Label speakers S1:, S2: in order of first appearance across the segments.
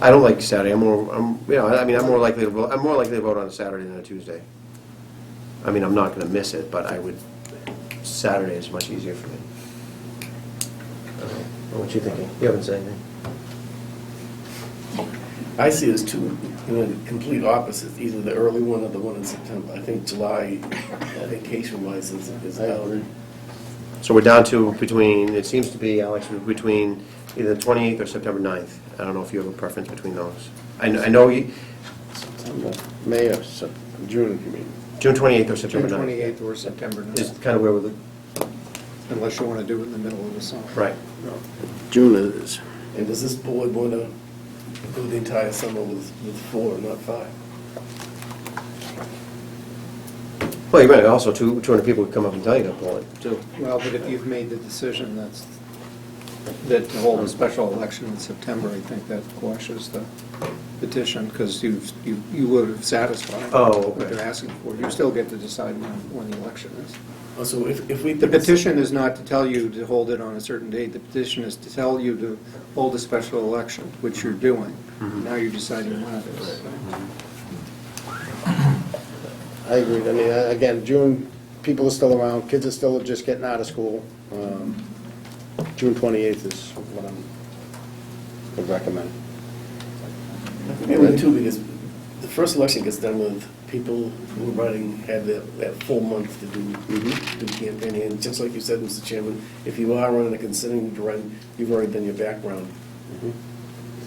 S1: I don't like Saturday, I'm more, I'm, you know, I I mean, I'm more likely to, vo- I'm more likely to vote on a Saturday than a Tuesday. I mean, I'm not gonna miss it, but I would, Saturday is much easier for me. I don't know. What you thinking? You haven't said anything.
S2: I see it as two, you know, the complete opposites, either the early one or the one in September. I think July, vacation wise, is, is out.
S1: So we're down to between, it seems to be, Alex, between either the 28th or September 9th. I don't know if you have a preference between those. I kn- I know, you-
S2: September.
S3: May or Sep- June, you mean?
S1: June 28th or
S4: June
S1: September 9th.
S4: 28th or September
S1: Is
S4: 9th,
S1: kind of where we're,
S4: unless you want to do it in the middle of the summer.
S1: right.
S3: June it is.
S2: And does this board want to go the entire summer with, with four, not five?
S1: Well, you're right, also, two- 200 people would come up and tell you to pull it, too.
S4: Well, but if you've made the decision that's, that to hold a special election in September, I think that quashes the petition, because you've, you you would have satisfied
S1: Oh,
S4: what
S1: okay.
S4: they're asking for. You still get to decide when, when the election is.
S2: Also, if, if we.
S4: The petition is not to tell you to hold it on a certain date, the petition is to tell you to hold a special election, which you're doing.
S1: Mm-hmm.
S4: Now you're deciding when it is.
S3: I agree, I mean, uh, again, June, people are still around, kids are still just getting out of school. Um, June twenty-eighth is what I'm, would recommend.
S2: And then too, because the first election gets done with people who are running had that, that full month to
S1: Mm-hmm.
S2: do, do campaigning. And just like you said, Mr. Chairman, if you are running, or considering to run, you've already done your background.
S1: Mm-hmm.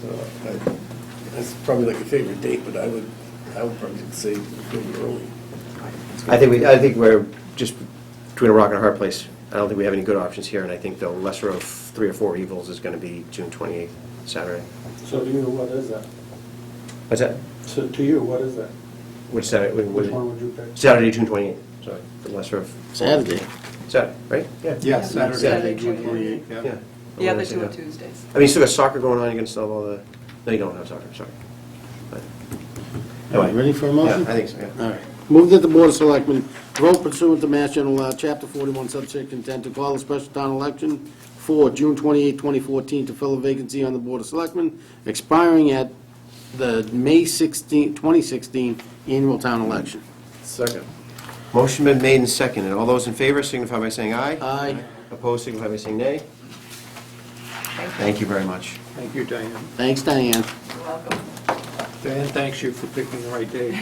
S2: So I, that's probably like your favorite date, but I would, I would probably say do it early.
S1: I think we, I think we're just between a rock and a hard place. I don't think we have any good options here, and I think the lesser of three or four evils is going to be June 28th, Saturday.
S5: So to you, what is that?
S1: What's that?
S5: So to you, what is that?
S1: Which Saturday? wait, what-
S5: Which one would you pick?
S1: Saturday, June 28th, sorry, the lesser of.
S3: Saturday.
S1: Saturday, right? Yeah.
S4: Yeah,
S1: Saturday,
S4: Saturday,
S6: June
S4: June 28th,
S1: Yeah.
S4: yeah.
S6: The other two are Tuesdays.
S1: I mean, you still got soccer going on, you can still have all the, no, you don't have soccer, sorry. But- Anyway.
S3: Ready for a motion?
S1: Yeah, I think so, yeah.
S3: All right. Move that the Board of Selectmen vote pursuant to Mass General Law, Chapter 41, subsection 10, to call a special town election for June 28, 2014, to fill a vacancy on the Board of Selectmen, expiring at the May 16, 2016 annual town election.
S2: Second.
S1: Motion been made and seconded. All those in favor signify by saying aye.
S3: Aye.
S1: Opposed signify by saying nay. Thank you very much.
S4: Thank you, Diane.
S3: Thanks, Diane.
S6: You're welcome.
S4: Dan, thanks you for picking the right date.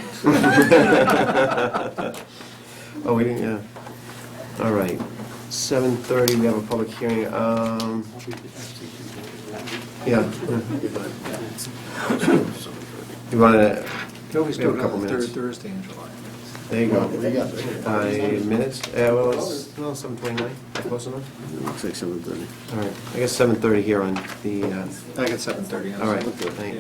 S1: Oh, we didn't, yeah. All right. 7:30, we have a public hearing. Um, Yeah. You want to,
S4: You always
S1: We
S4: do
S1: have
S4: it
S1: a couple
S4: on the third
S1: minutes.
S4: Thursday in July.
S1: there you go.
S3: Looks
S1: Uh, Minutes? Yeah, well, it's, no, 7:29, close enough?
S3: like 7:30.
S1: All right, I guess 7:30 here on the, uh,
S4: I got 7:30. I'm
S1: all right,
S4: sorry.
S1: thank-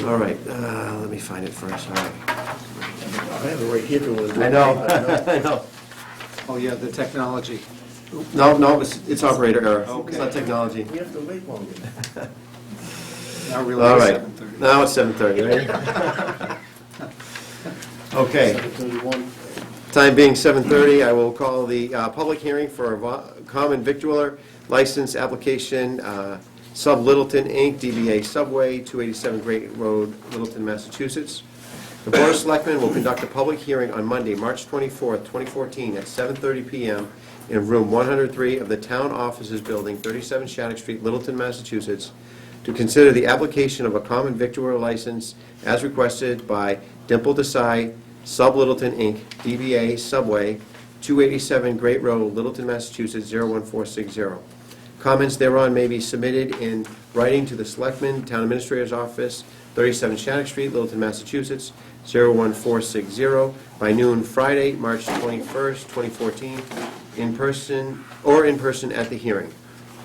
S4: Yeah.
S1: all right, uh, let me find it first, all right.
S2: I have it right here if you want to do it.
S1: I know.
S4: Oh, yeah, the technology.
S1: No, no, it's, it's operator error. It's not
S4: Okay.
S1: technology.
S2: We have to wait longer.
S4: Now
S1: All
S4: really
S1: right,
S4: it's 7:30.
S1: now it's seven thirty, right? Okay,
S3: 7:31.
S1: time being seven thirty, I will call the uh, public hearing for a vo- common victualler license application, uh, Sub Littleton Inc., DBA Subway, 287 Great Road, Littleton, Massachusetts. The Board of Selectmen will conduct a public hearing on Monday, March 24th, 2014, at 7:30 PM in Room 103 of the Town Offices Building, 37 Shattuck Street, Littleton, Massachusetts, to consider the application of a common victualler license as requested by Dimple Desai, Sub Littleton Inc., DBA Subway, 287 Great Road, Littleton, Massachusetts, 01460. Comments thereon may be submitted in writing to the Selectman, Town Administrator's Office, 37 Shattuck Street, Littleton, Massachusetts, 01460, by noon Friday, March 21st, 2014, in person, or in person at the hearing.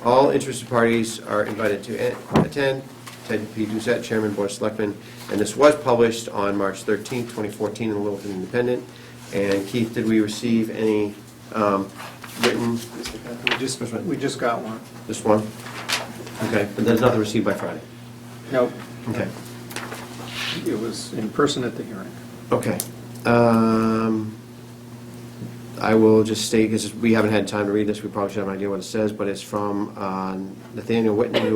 S1: All interested parties are invited to a- attend. Ted P. Doucette, Chairman, Board of Selectmen, and this was published on March 13th, 2014, in the Littleton Independent. And Keith, did we receive any um, written,
S4: We just, we just got one.
S1: this one? Okay, but there's nothing received by Friday?
S4: Nope,
S1: Okay.
S4: it was in person at the hearing.
S1: Okay. Um, I will just state, because we haven't had time to read this, we probably should have an idea what it says, but it's from uh, Nathaniel Whitney,